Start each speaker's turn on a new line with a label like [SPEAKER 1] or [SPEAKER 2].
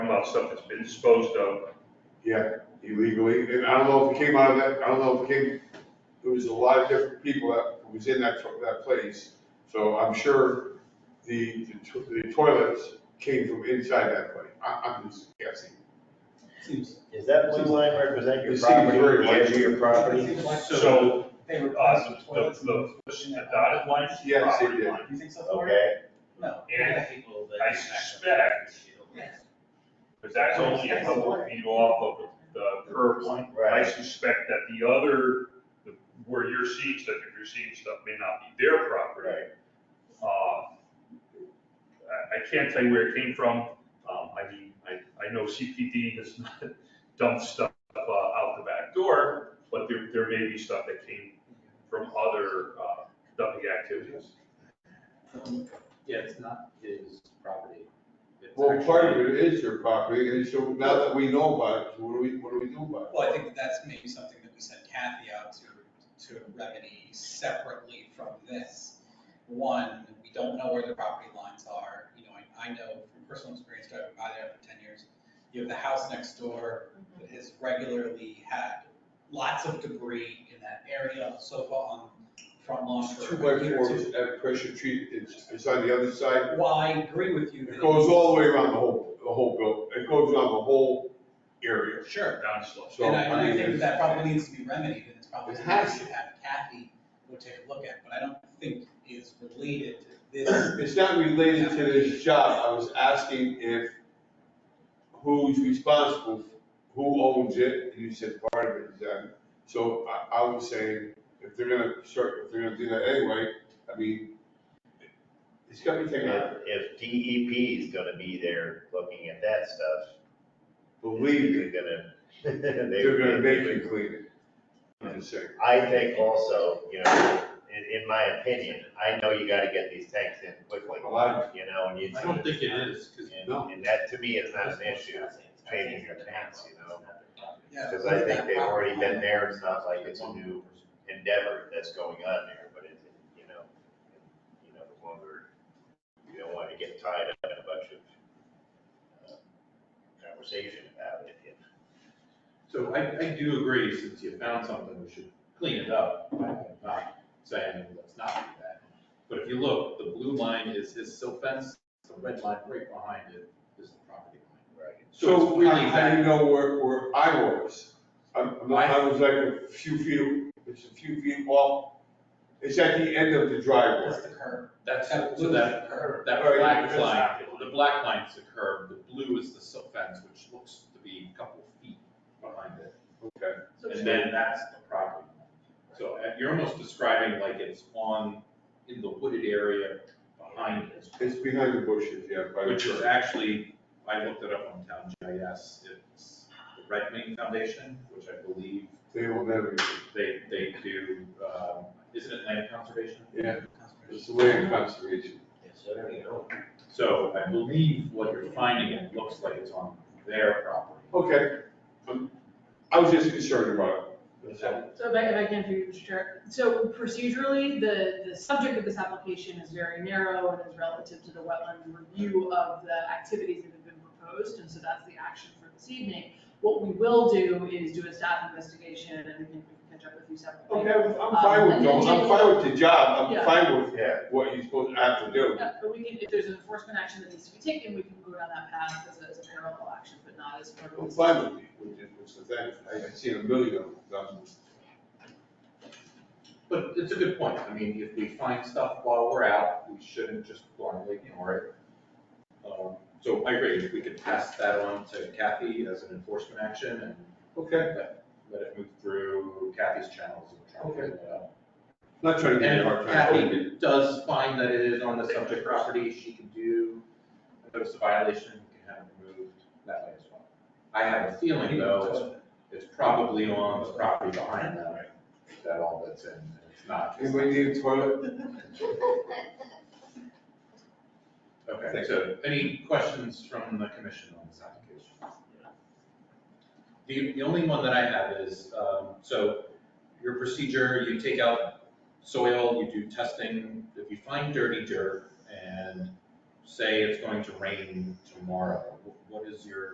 [SPEAKER 1] about stuff that's been disposed of.
[SPEAKER 2] illegally, and I don't know if it came out of that, I don't know if it came, there was a lot of different people that was in that, that place, so I'm sure the, the to- the toilets came from inside that place, I, I'm just guessing.
[SPEAKER 3] Seems,
[SPEAKER 4] Is that blue line represent your
[SPEAKER 2] It seems
[SPEAKER 4] property,
[SPEAKER 2] very
[SPEAKER 4] the edge of your
[SPEAKER 3] it
[SPEAKER 4] property?
[SPEAKER 3] seems like
[SPEAKER 1] So,
[SPEAKER 3] they were
[SPEAKER 1] uh,
[SPEAKER 3] passing
[SPEAKER 1] the,
[SPEAKER 3] toilets and
[SPEAKER 1] the,
[SPEAKER 3] pushing
[SPEAKER 1] the
[SPEAKER 3] that
[SPEAKER 1] dotted line is the
[SPEAKER 2] Yes, they
[SPEAKER 1] property
[SPEAKER 2] did.
[SPEAKER 1] line.
[SPEAKER 3] You think so? Thor?
[SPEAKER 4] Okay,
[SPEAKER 3] No.
[SPEAKER 1] And I suspect, because that's only a couple of feet off of the curb line. I
[SPEAKER 4] right.
[SPEAKER 1] suspect that the other, the- where you're seeing stuff, if you're seeing stuff, may not be their property.
[SPEAKER 4] Right.
[SPEAKER 1] Uh, I, I can't tell you where it came from. Um, I mean, I, I know CPD has not dumped stuff uh, out the back door, but there, there may be stuff that came from other uh, dumping activities.
[SPEAKER 5] Yeah, it's not his property. It's
[SPEAKER 2] Well, part of
[SPEAKER 5] actually-
[SPEAKER 2] it is your property, and so now that we know about it, what do we, what do we do about it?
[SPEAKER 3] Well, I think that that's maybe something that we sent Kathy out to, to remedy separately from this. One, we don't know where the property lines are, you know, I, I know from personal experience driving by there for ten years, you have the house next door that has regularly had lots of debris in that area, sofa on front lawn
[SPEAKER 2] It's Two
[SPEAKER 3] for
[SPEAKER 2] by
[SPEAKER 3] a year or two.
[SPEAKER 2] fours at pressure treat, it's, it's on the other side,
[SPEAKER 3] Well, I agree with you. that
[SPEAKER 2] it goes all the way around the whole, the whole building, it goes around the whole area,
[SPEAKER 3] Sure,
[SPEAKER 1] Down slope.
[SPEAKER 2] so.
[SPEAKER 3] And I, and I
[SPEAKER 2] mean,
[SPEAKER 3] think that that
[SPEAKER 2] it's-
[SPEAKER 3] probably needs to be remedied, and it's probably
[SPEAKER 2] It
[SPEAKER 3] something we
[SPEAKER 2] has
[SPEAKER 3] should have Kathy go take a look at, but I don't think is related to this.
[SPEAKER 2] It's not related to this job, I was asking if, who's responsible, who owns it, and you said part of it is them. So I, I would say, if they're gonna start, if they're gonna do that anyway, I mean, it's gotta be taken out,
[SPEAKER 4] If DEP is gonna be there looking at that stuff,
[SPEAKER 2] believe me,
[SPEAKER 4] They're gonna. they-
[SPEAKER 2] they're gonna
[SPEAKER 4] they-
[SPEAKER 2] make you clean it. I'm just saying,
[SPEAKER 4] I think also, you know, in, in my opinion, I know you gotta get these tanks in quickly,
[SPEAKER 2] a lot,
[SPEAKER 4] you know, and you.
[SPEAKER 5] I don't think it is, because.
[SPEAKER 4] And,
[SPEAKER 2] No.
[SPEAKER 4] and that to me is not an issue, changing your tanks, you know?
[SPEAKER 3] Yeah,
[SPEAKER 4] Cause
[SPEAKER 3] what
[SPEAKER 4] I
[SPEAKER 3] is
[SPEAKER 4] think
[SPEAKER 3] that
[SPEAKER 4] they've
[SPEAKER 3] property
[SPEAKER 4] already been
[SPEAKER 3] line?
[SPEAKER 4] there, it's not like it's a new endeavor that's going on there, but it's, you know, you know, the longer, you don't wanna get tied up in a bunch of uh, conversation about it, if
[SPEAKER 5] So I, I do agree, since you found something, we should clean it up. I'm not saying let's not do that. But if you look, the blue line is his silt fence, the red line right behind it is the property line.
[SPEAKER 4] Right.
[SPEAKER 5] So
[SPEAKER 2] so
[SPEAKER 5] it's really
[SPEAKER 2] how, how do you
[SPEAKER 5] that,
[SPEAKER 2] know where, where I was? I'm, I'm not- I was like a few feet, it's a few feet off, it's at the end of the driveway.
[SPEAKER 3] That's the curb,
[SPEAKER 5] that's,
[SPEAKER 3] that
[SPEAKER 5] so
[SPEAKER 3] blue
[SPEAKER 5] that,
[SPEAKER 3] is the curb.
[SPEAKER 5] That
[SPEAKER 2] Right,
[SPEAKER 5] black
[SPEAKER 2] that's-
[SPEAKER 5] line, the black line's the curb, the blue is the silk fence, which looks to be a couple feet behind it.
[SPEAKER 2] Okay.
[SPEAKER 5] And then that's the property. line. So uh, you're almost describing like it's on, in the wooded area behind it,
[SPEAKER 2] It's behind the bushes, yeah, by the
[SPEAKER 5] which is
[SPEAKER 2] church.
[SPEAKER 5] actually, I looked it up on Town GIS, it's the Red Wing Foundation, which I believe
[SPEAKER 2] They will never,
[SPEAKER 5] they, they do, um, isn't it land conservation?
[SPEAKER 2] yeah, it's the land conservation.
[SPEAKER 4] So there you go.
[SPEAKER 5] So I believe what you're finding, it looks like it's on their property.
[SPEAKER 2] Okay. Um, I was just concerned about it.
[SPEAKER 5] So
[SPEAKER 6] So if I, if I can, through you, Mr. Chair, so procedurally, the, the subject of this application is very narrow and is relative to the wetland review of the activities that have been proposed, and so that's the action for this evening. What we will do is do a staff investigation, and we can we can catch up with you separately.
[SPEAKER 2] Okay, I'm
[SPEAKER 6] Um,
[SPEAKER 2] I'm fine with, going- I'm fine with the job, I'm
[SPEAKER 6] Yeah.
[SPEAKER 2] fine with
[SPEAKER 4] Yeah,
[SPEAKER 2] what you're supposed to have to do.
[SPEAKER 6] Yeah, but we can, if there's an enforcement action that needs to be taken, we can go down that path as a, as a parallel action, but not as part of
[SPEAKER 2] I'm
[SPEAKER 6] this.
[SPEAKER 2] fine with it, which is, which is that, I- I've seen a million of them.
[SPEAKER 5] But it's a good point. I mean, if we find stuff while we're out, we shouldn't just blindly ignore it. Um, So I agree, if we could pass that on to Kathy as an enforcement action and
[SPEAKER 2] Okay,
[SPEAKER 5] let let it move through Kathy's channels and try to figure it out.
[SPEAKER 2] not trying to
[SPEAKER 5] And
[SPEAKER 2] get a hard
[SPEAKER 5] if
[SPEAKER 2] time.
[SPEAKER 5] Kathy does find that it is on the subject property, she can do a notice of violation, we can have it removed that way as well. I have a feeling though, it's- it's probably on the property behind them, that all that's in, and it's not. just-
[SPEAKER 2] Anybody need a toilet?
[SPEAKER 5] Okay, so any questions from the commission on this application? The, the only one that I have is, um, so your procedure, you take out soil, you do testing. If you find dirty dirt and say it's going to rain tomorrow, wh- what is your